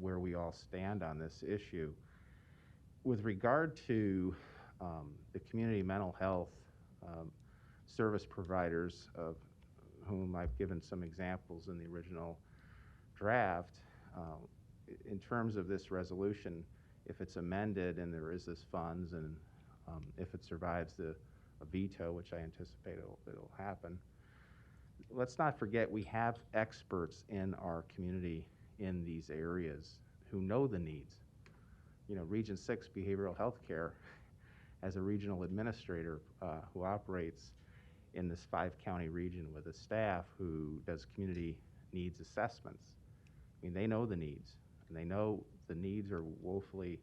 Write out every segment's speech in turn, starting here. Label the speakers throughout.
Speaker 1: where we all stand on this issue. With regard to um, the community mental health um, service providers, of whom I've given some examples in the original draft, uh, i- in terms of this resolution, if it's amended and there is this funds, and um, if it survives the a veto, which I anticipate it'll, it'll happen, let's not forget we have experts in our community in these areas who know the needs. You know, Region Six Behavioral Health Care has a regional administrator uh, who operates in this five-county region with a staff who does community needs assessments. I mean, they know the needs, and they know the needs are woefully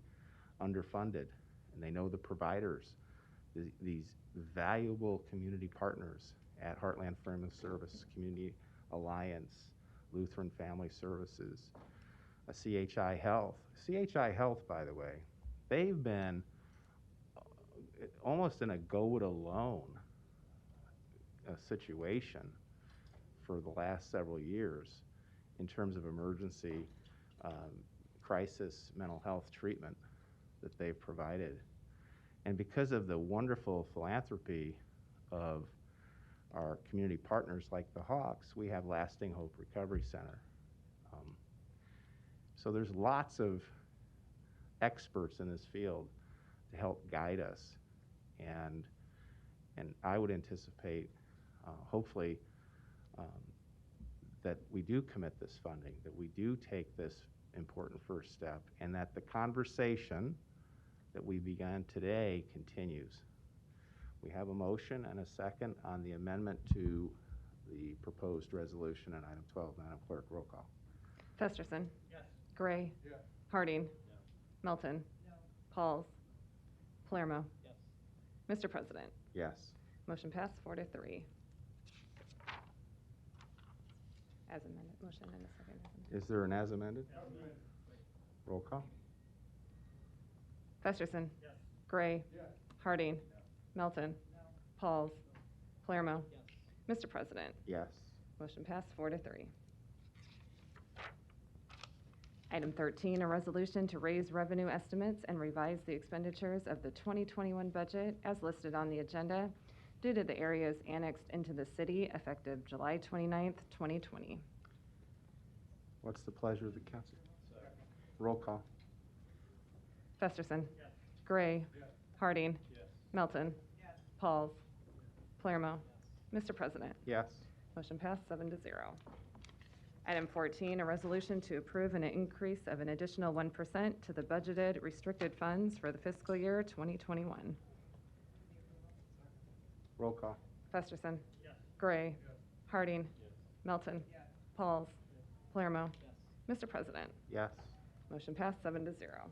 Speaker 1: underfunded, and they know the providers, the- these valuable community partners at Heartland Firm of Service, Community Alliance, Lutheran Family Services, uh, CHI Health. CHI Health, by the way, they've been uh, almost in a go-it-alone uh, situation for the last several years in terms of emergency um, crisis mental health treatment that they've provided. And because of the wonderful philanthropy of our community partners like the Hawks, we have Lasting Hope Recovery Center. Um, so there's lots of experts in this field to help guide us. And, and I would anticipate, uh, hopefully, um, that we do commit this funding, that we do take this important first step, and that the conversation that we began today continues. We have a motion and a second on the amendment to the proposed resolution on item 12. Madam Clerk, roll call.
Speaker 2: Festerson.
Speaker 3: Yes.
Speaker 2: Gray.
Speaker 3: Yeah.
Speaker 2: Harding. Melton. Pauls. Palermo.
Speaker 3: Yes.
Speaker 2: Mr. President,
Speaker 1: Yes.
Speaker 2: motion passed four to three. As amended, motion and a second. as amended.
Speaker 1: Is there an as amended? Roll call.
Speaker 2: Festerson.
Speaker 3: Yes.
Speaker 2: Gray.
Speaker 3: Yeah.
Speaker 2: Harding. Melton. Pauls. Palermo. Mr. President,
Speaker 1: Yes.
Speaker 2: Motion passed four to three. Item 13, a resolution to raise revenue estimates and revise the expenditures of the 2021 budget as listed on the agenda due to the areas annexed into the city effective July 29th, 2020.
Speaker 1: What's the pleasure of the council? Roll call.
Speaker 2: Festerson. Gray.
Speaker 3: Yeah.
Speaker 2: Harding.
Speaker 3: Yes.
Speaker 2: Melton. Pauls. Palermo. Mr. President.
Speaker 1: Yes.
Speaker 2: Motion passed, seven to zero. Item 14, a resolution to approve an increase of an additional 1% to the budgeted restricted funds for the fiscal year 2021.
Speaker 1: Roll call.
Speaker 2: Festerson. Gray. Harding. Melton. Pauls. Palermo. Mr. President,
Speaker 1: Yes.
Speaker 2: motion passed, seven to zero.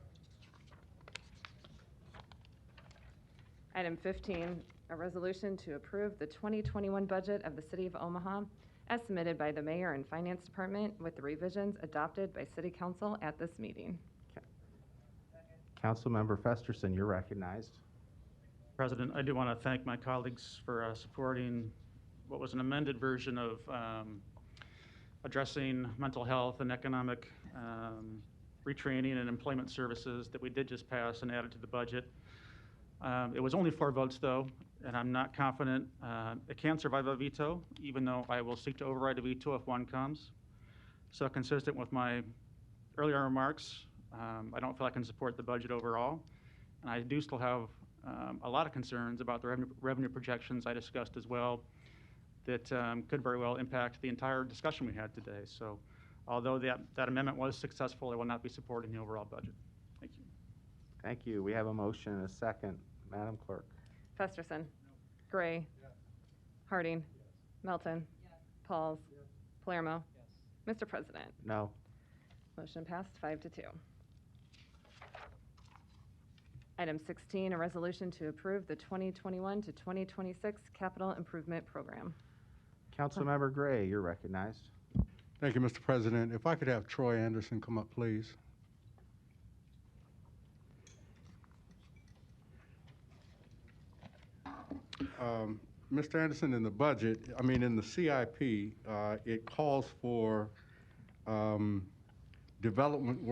Speaker 2: Item 15, a resolution to approve the 2021 budget of the City of Omaha as submitted by the Mayor and Finance Department with the revisions adopted by City Council at this meeting.
Speaker 1: Councilmember Festerson, you're recognized.
Speaker 3: President, I do want to thank my colleagues for uh, supporting what was an amended version of um, addressing mental health and economic um, retraining and employment services that we did just pass and added to the budget. Um, It was only four votes, though, and I'm not confident. uh, It can survive a veto, even though I will seek to override a veto if one comes. So consistent with my earlier remarks, um, I don't feel I can support the budget overall. And I do still have um, a lot of concerns about the revenue- revenue projections I discussed as well that um, could very well impact the entire discussion we had today. So although that that amendment was successful, I will not be supporting the overall budget. Thank you.
Speaker 1: Thank you. We have a motion and a second. Madam Clerk.
Speaker 2: Festerson. Gray. Harding. Melton. Pauls. Palermo. Mr. President,
Speaker 1: No.
Speaker 2: motion passed five to two. Item 16, a resolution to approve the 2021 to 2026 capital improvement program.
Speaker 1: Councilmember Gray, you're recognized.
Speaker 4: Thank you, Mr. President. If I could have Troy Anderson come up, please. Um, Mr. Anderson, in the budget, I mean, in the CIP, uh, it calls for um, development